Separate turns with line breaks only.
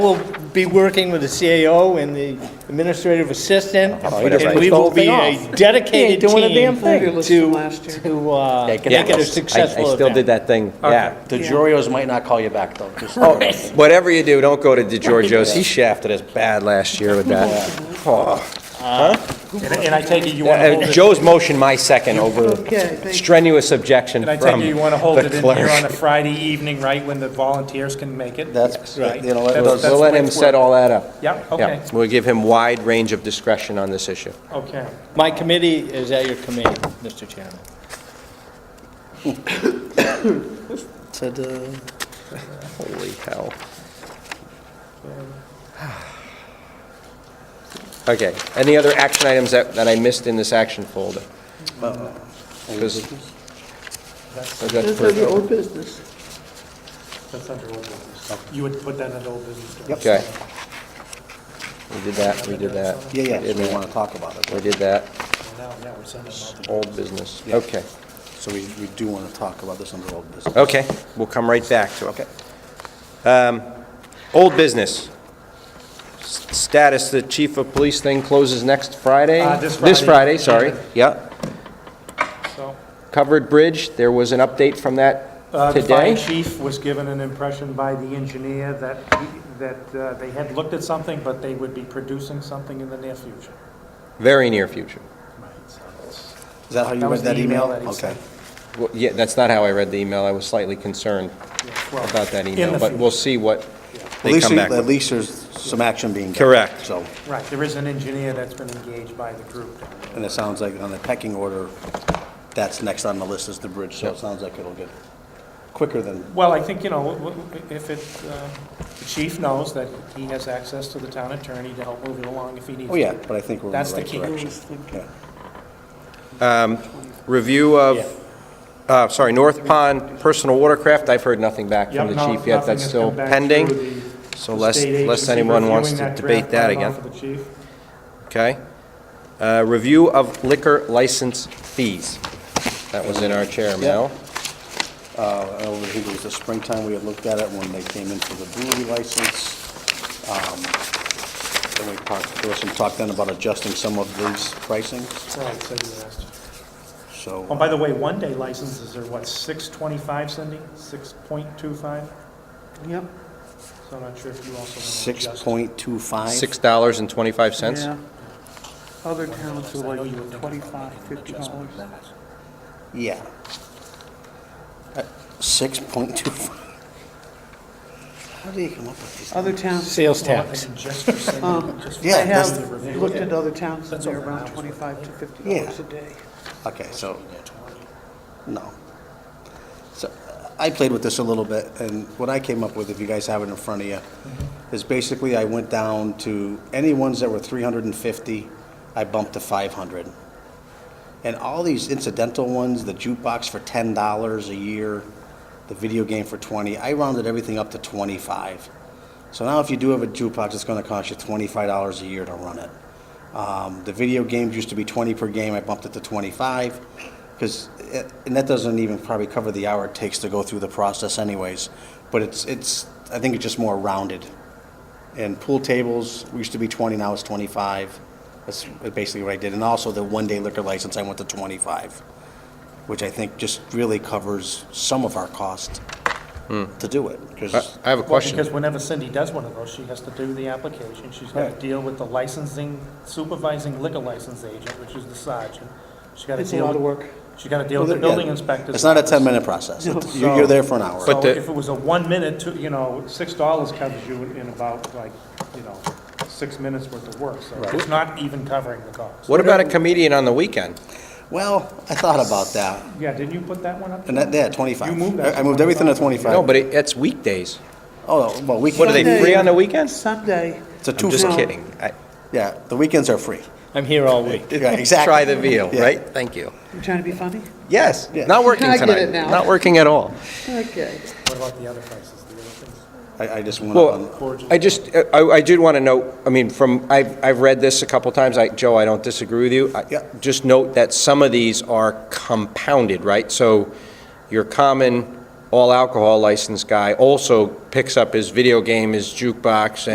We'll be working with the CAO and the administrative assistant,
Oh, he doesn't
and
push
we
the
will
whole
be
thing
a
off.
dedicated
He ain't doing a
team
damn
to,
thing.
Fabulous from last year.
to uh,
Yeah,
make
get that
it a
close. I-
successful
I still did
event.
that thing, yeah. Oh,
The Jorios might not call you back, though. Just-
Whatever you do, don't go to DeGiorgio's. He shafted us bad last year with that. Oh.
And and I take it you want to hold
Uh,
it.
Joe's motion, my second, over
Okay, thank you.
strenuous objection
And I
from
take it you want to hold
the
it in here on a
clerk.
Friday evening, right, when the volunteers can make it?
That's-
Right.
you know,
That's-
We'll
that's
we'll
the
let
way
him
it's
set
worked.
all that up.
Yeah, okay,
Yeah, We'll give him wide range of discretion on this issue.
okay.
My committee is at your command, Mr. Chairman.
Holy hell. Okay, any other action items that, that I missed in this action folder? Because- Oh,
That's under old business.
That's under old business. You would put that under old business? Joe?
Okay. We did that, we did that.
Yeah,
We
yeah,
did
so we
that.
want to talk about it.
We did that,
Now, yeah, we're sending them out.
old business, okay.
So we, we do want to talk about this under old business.
Okay, we'll come right back to it. Um,
Okay.
Old business. S- Status, the chief of police thing closes next Friday?
Uh, this
This
Friday.
Friday, sorry, yeah.
So,
Covered bridge, there was an update from that
uh, The fire
today?
chief was given an impression by the engineer that, he- that uh, they had looked at something, but they would be producing something in the near future.
Very near future.
Is that how you
That
read
was
that
the email
email?
that he
Okay.
sent.
Well, Yeah, that's not how I read the email, I was slightly concerned
Well,
about that
in
email,
the
but
future.
we'll see what
At
they
least,
come
you-
back
at
with.
least there's some action being. taken.
Correct.
So,
Right, there is an engineer that's been engaged by the group.
and it sounds like on the pecking order, that's next on the list is the bridge, so it sounds like it'll get quicker than,
Well, I think, you know, w- w- if it, uh, the chief knows that he has access to the town attorney to help move it along if he needs to.
oh yeah, but I think we're in
That's
the
the
right
key.
direction. Yeah.
Review of, uh, sorry, North Pond personal watercraft, I've heard nothing back from
Yep,
the
no-
chief yet,
nothing
that's
has
still
come back
pending.
through the-
so
the
lest-
state
lest
agency
anyone wants
reviewing
to
that
debate
draft
that
bylaw
again.
for the chief.
Okay. Uh, Review of liquor license fees. That was in our chair mail.
Uh, I don't think it was the springtime we had looked at it when they came in for the brewery license. Um, Then we talked, there was some talk then about adjusting some of these pricing,
Right, so you asked.
so.
Oh, by the way, one-day licenses are what, 625, Cindy? 6.25?
Yep.
So I'm not sure if you also want to adjust.
6.25?
$6.25.
Yeah. Other towns
I
are
know you would
like
think
twenty-five, fifty dollars.
Yeah. Uh, 6.25. How do you come up with these?
Other towns,
Sales
Well,
tax.
and just for Cindy,
Um,
just for-
I
Yeah, that's
have looked at other towns, and they're around twenty-five to fifty dollars
Yeah.
a day.
Okay, so, no. So, I played with this a little bit, and what I came up with, if you guys have it in front of you, is basically I went down to any ones that were 350, I bumped to 500. And all these incidental ones, the jukebox for $10 a year, the video game for 20, I rounded everything up to 25. So now if you do have a jukebox, it's gonna cost you $25 a year to run it. Um, The video games used to be 20 per game, I bumped it to 25, because, and that doesn't even probably cover the hour it takes to go through the process anyways, but it's, it's, I think it's just more rounded. And pool tables used to be 20, now it's 25. That's basically what I did. And also the one-day liquor license, I went to 25, which I think just really covers some of our cost
Hmm.
to do it. 'cause-
Uh, I I have a
Well,
question.
because whenever Cindy does one of those, she has to do the application, she's got to
Right.
deal with the licensing, supervising liquor license agent, which is the sergeant. She's got to
It's a
deal
lot
with.
of work.
She's got to deal with the
Well, yeah,
building inspectors.
It's not a 10-minute process. It's- You're you're there for an hour.
So
But the-
if it was a one minute, to- you know, six dollars covers you in about like, you know, six minutes worth of work, so it's not even covering the cost.
What about a comedian on the weekend?
Well, I thought about that,
Yeah, didn't you put that one up?
and that, yeah, 25.
You moved that
I I moved everything to 25.
No, but it- it's weekdays.
Oh, no, well, we
What, are they
can,
Sunday.
free on the weekends?
Sunday,
it's a
I'm just
two-for,
kidding. I-
yeah, the weekends are free.
I'm here all week.
Yeah, exactly.
Try the veal,
Yeah.
right? Thank you.
you trying to be funny?
Yes,
Yeah.
not working
I
tonight.
get it now.
Not working at all.
Okay.
What about the other prices, the other things?
I, I just went up on.
Well, I just, I I did want to note, I mean, from, I've I've read this a couple times, I, Joe, I don't disagree with you. I-
Yeah.
Just note that some of these are compounded, right? So your common all-alcohol license guy also picks up his video game, his jukebox,